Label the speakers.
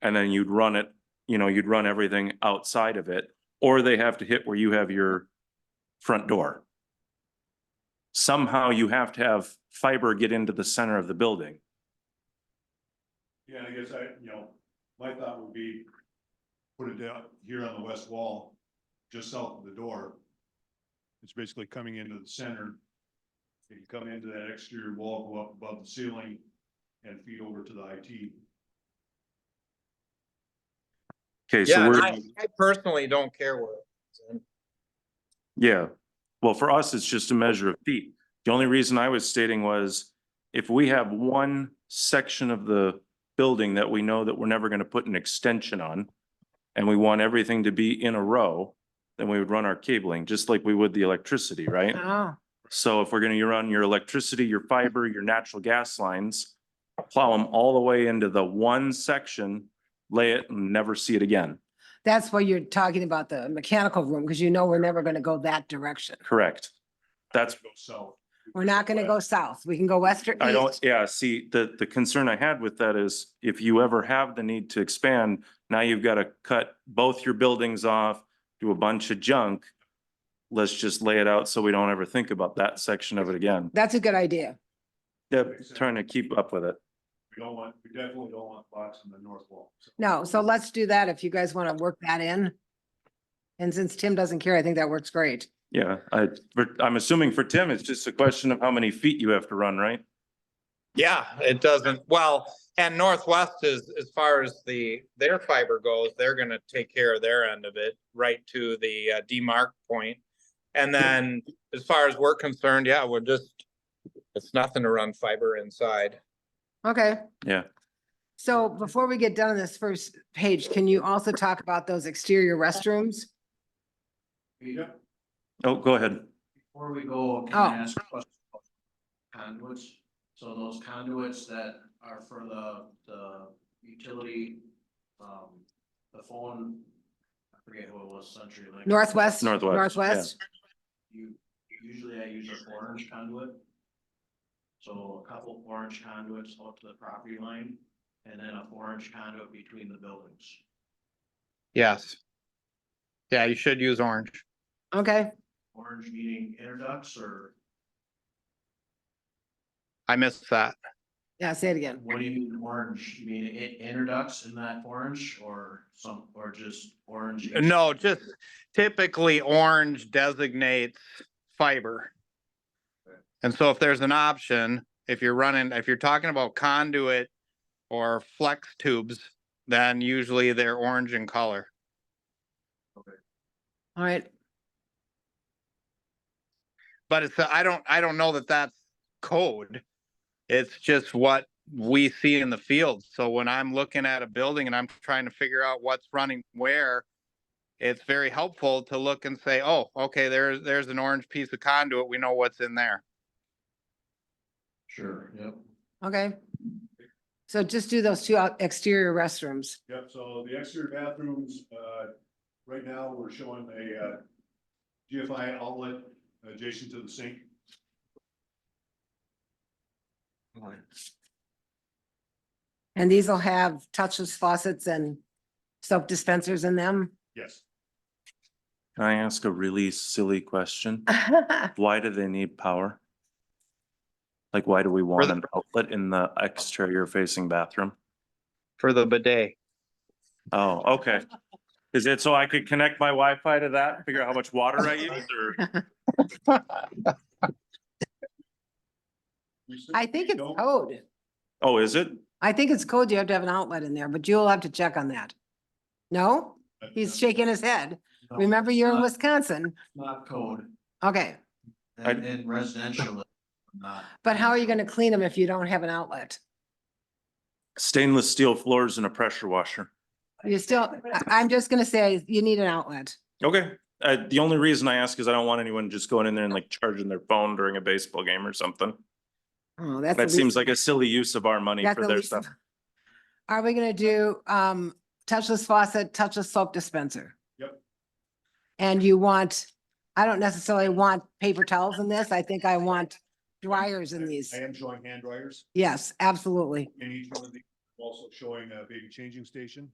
Speaker 1: And then you'd run it, you know, you'd run everything outside of it, or they have to hit where you have your front door. Somehow you have to have fiber get into the center of the building.
Speaker 2: Yeah, and I guess I, you know, my thought would be, put it down here on the west wall, just south of the door. It's basically coming into the center. It can come into that exterior wall, go up above the ceiling and feed over to the IT.
Speaker 1: Okay, so
Speaker 3: Yeah, and
Speaker 1: we're.
Speaker 3: I, I personally don't care where. it's in.
Speaker 1: Yeah, well, for us, it's just a measure of feet. The only reason I was stating was if we have one section of the building that we know that we're never gonna put an extension on and we want everything to be in a row, then we would run our cabling, just like we would the electricity, right?
Speaker 4: Oh,
Speaker 1: So if we're gonna run your electricity, your fiber, your natural gas lines, plow them all the way into the one section, lay it and never see it again.
Speaker 4: that's why you're talking about the mechanical room, because you know we're never gonna go that direction.
Speaker 1: Correct. That's
Speaker 2: Go south.
Speaker 4: We're not gonna go south. We can go west or
Speaker 1: I don't,
Speaker 4: east.
Speaker 1: yeah, see, the, the concern I had with that is if you ever have the need to expand, now you've got to cut both your buildings off, do a bunch of junk. Let's just lay it out so we don't ever think about that section of it again.
Speaker 4: That's a good idea.
Speaker 1: Yeah, trying to keep up with it.
Speaker 2: We don't want, we definitely don't want box in the north wall. so.
Speaker 4: No, so let's do that if you guys want to work that in. And since Tim doesn't care, I think that works great.
Speaker 1: Yeah, I, but I'm assuming for Tim, it's just a question of how many feet you have to run, right?
Speaker 3: Yeah, it doesn't, well, and Northwest is, as far as the, their fiber goes, they're gonna take care of their end of it, right to the uh, demarc point. And then, as far as we're concerned, yeah, we're just, it's nothing to run fiber inside.
Speaker 4: Okay.
Speaker 1: Yeah.
Speaker 4: So before we get done on this first page, can you also talk about those exterior restrooms?
Speaker 5: Rita,
Speaker 1: Oh, go ahead.
Speaker 5: before we go, can
Speaker 4: Oh.
Speaker 5: I ask a question? about Conduits, so those conduits that are for the, the utility, um, the phone, I forget who it was, Century Link.
Speaker 4: Northwest?
Speaker 1: Northwest, yeah.
Speaker 4: Northwest?
Speaker 5: You, usually I use an orange conduit. So a couple orange conduits up to the property line, and then a orange conduit between the buildings.
Speaker 3: Yes. Yeah, you should use orange.
Speaker 4: Okay,
Speaker 5: Orange meaning interducts or
Speaker 3: I missed that.
Speaker 4: yeah, say it again.
Speaker 5: What do you mean orange? You mean it introducts in that orange or some, or just orange?
Speaker 3: Uh, No, just typically orange designates fiber. And so if there's an option, if you're running, if you're talking about conduit or flex tubes, then usually they're orange in color.
Speaker 4: All right.
Speaker 3: But it's, I don't, I don't know that that's code. It's just what we see in the field. So when I'm looking at a building and I'm trying to figure out what's running where, it's very helpful to look and say, oh, okay, there's, there's an orange piece of conduit. We know what's in there.
Speaker 5: Sure, yep.
Speaker 4: Okay. So just do those two out- exterior restrooms.
Speaker 2: Yep, so the exterior bathrooms, uh, right now, we're showing a, uh, GFI outlet adjacent to the sink.
Speaker 4: And these will have touchless faucets and soap dispensers in them.
Speaker 2: Yes.
Speaker 1: Can I ask a really silly question? Why do they need power? Like, why do we want
Speaker 3: the-
Speaker 1: an outlet in the exterior facing bathroom?
Speaker 3: For the bidet.
Speaker 1: Oh, okay. Is it so I could connect my Wi-Fi to that, figure out how much water I use or?
Speaker 2: We
Speaker 4: I think it's
Speaker 2: don't-
Speaker 4: code.
Speaker 1: Oh, is it?
Speaker 4: I think it's code. You have to have an outlet in there, but you'll have to check on that. No? He's shaking his head.
Speaker 5: No,
Speaker 4: Remember,
Speaker 5: it's
Speaker 4: you're in
Speaker 5: not-
Speaker 4: Wisconsin.
Speaker 5: Not code,
Speaker 4: Okay,
Speaker 1: I-
Speaker 5: and, and residential, not.
Speaker 4: but how are you gonna clean them if you don't have an outlet?
Speaker 1: Stainless steel floors and a pressure washer.
Speaker 4: You still, I- I'm just gonna say you need an outlet.
Speaker 1: Okay. Uh, the only reason I ask is I don't want anyone just going in there and like charging their phone during a baseball game or something.
Speaker 4: Oh, that's. the
Speaker 1: That seems
Speaker 4: least-
Speaker 1: like a silly use of our money
Speaker 4: that's
Speaker 1: for
Speaker 4: the
Speaker 1: their
Speaker 4: least-
Speaker 1: stuff.
Speaker 4: Are we gonna do um touchless faucet, touchless soap dispenser?
Speaker 2: Yep.
Speaker 4: And you want, I don't necessarily want paper towels in this. I think I want dryers in these.
Speaker 2: I am showing hand dryers
Speaker 4: Yes, absolutely.
Speaker 2: in each one of these, I'm also showing a baby changing station.